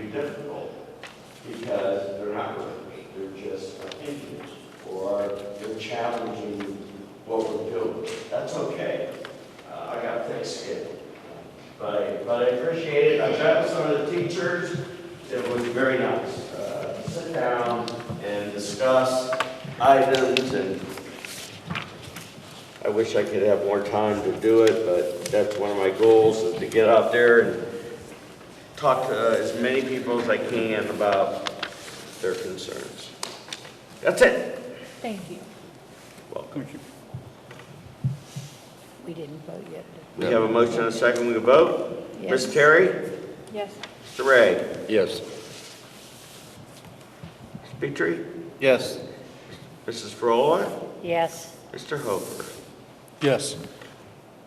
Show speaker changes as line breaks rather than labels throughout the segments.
difficult because they're not really, they're just opinions or they're challenging what we're doing. That's okay. Uh, I got thick skin. But I, but I appreciate it. I met with some of the teachers. It was very nice. Uh, Sit down and discuss items and I wish I could have more time to do it, but that's one of my goals, is to get out there and talk to uh, as many people as I can about their concerns. That's it.
Thank you.
Welcome.
We didn't vote yet.
We have a motion and a second, we can vote?
Yes.
Ms. Terry?
Yes.
Mr. Ray?
Yes.
Ms. Petrie?
Yes.
Mrs. Frola?
Yes,
Mr. Hofer?
Yes.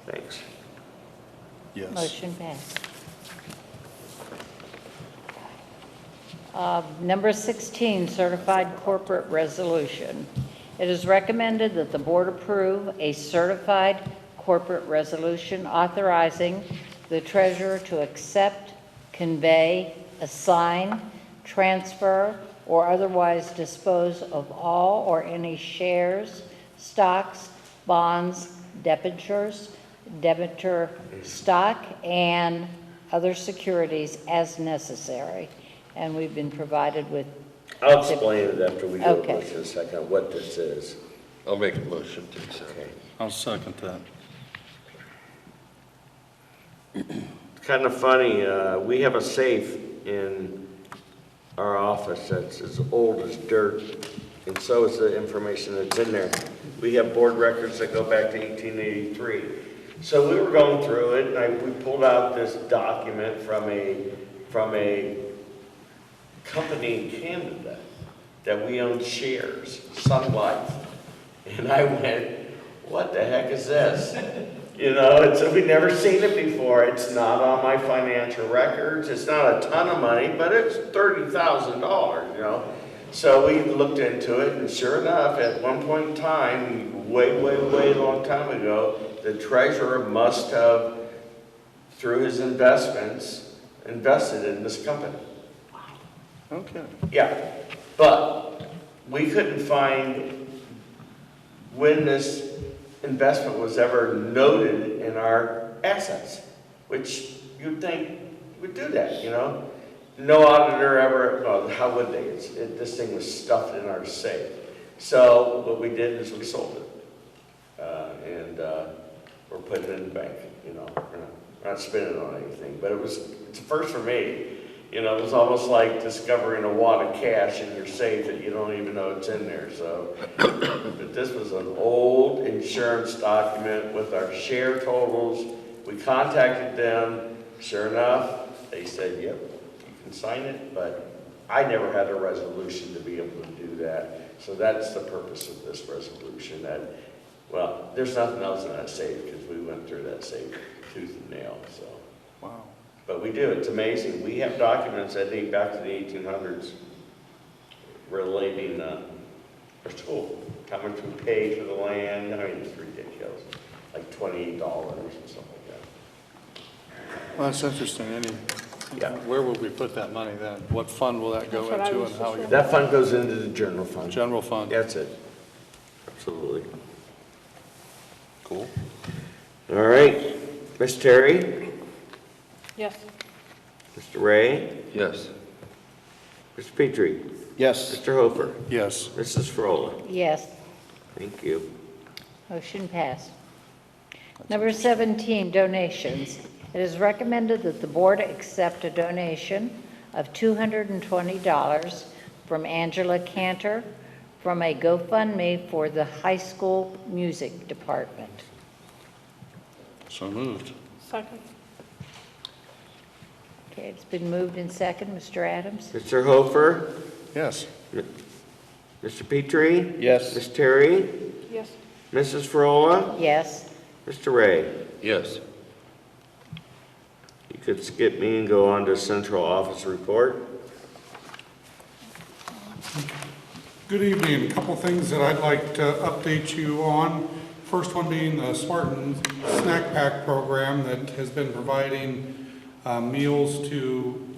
Thanks.
Yes.
motion passed. Uh, Number 16, certified corporate resolution. It is recommended that the board approve a certified corporate resolution authorizing the treasurer to accept, convey, assign, transfer, or otherwise dispose of all or any shares, stocks, bonds, debentures, debenture stock, and other securities as necessary. And we've been provided with,
I'll explain it after we do a
Okay.
motion and a second, what this is.
I'll make a motion to accept.
Okay.
I'll second that.
It's kind of funny, uh, we have a safe in our office that's as old as dirt, and so is the information that's in there. We have board records that go back to 1883. So we were going through it, and I, we pulled out this document from a, from a company in Canada that we own shares, Sun Life. And I went, what the heck is this? You know, it's, we've never seen it before. It's not on my financial records. It's not a ton of money, but it's thirty thousand dollars, you know? So we looked into it and sure enough, at one point in time, way, way, way long time ago, the treasurer must have, through his investments, invested in this company.
Okay.
Yeah, but we couldn't find when this investment was ever noted in our assets, which you'd think would do that, you know? No auditor ever, well, how would they? It's, it, this thing was stuffed in our safe. So what we did is we sold it. Uh, and, uh, we're putting it in the bank, you know, we're not, we're not spending it on anything, but it was, it's a first for me. You know, it was almost like discovering a wad of cash in your safe that you don't even know it's in there, so. But this was an old insurance document with our share totals. We contacted them, sure enough, they said, yep, you can sign it, but I never had a resolution to be able to do that. So that's the purpose of this resolution, that, well, there's nothing else in that safe, because we went through that safe tooth and nail, so.
Wow.
But we do, it's amazing. We have documents that date back to the eighteen hundreds relating, uh, our school, how much we paid for the land, I mean, it's ridiculous, like twenty-eight dollars or something like
Well, that's interesting. Any,
Yeah.
where will we put that money then? What fund will that go
That's what I
into
was
and how?
just
we-
that. That fund goes into the general fund.
General fund?
That's it. Absolutely.
Cool.
All right, Ms. Terry,
yes,
Mr. Ray,
Yes.
Mr. Petrie,
Yes.
Mr. Hofer,
Yes.
Mrs. Frola.
yes,
Thank you.
motion passed. Number 17, donations. It is recommended that the board accept a donation of $220 from Angela Cantor from a GoFundMe for the high school music department.
So moved.
Second.
Okay, it's been moved in second, Mr. Adams?
Mr. Hofer,
Yes.
Mr. Petrie,
Yes.
Ms. Terry,
Yes.
Mrs. Frola.
Yes,
Mr. Ray,
Yes.
you could skip me and go on to central office report.
Good evening. A Couple things that I'd like to update you on. First one being the Spartan Snack Pack program that has been providing uh, meals to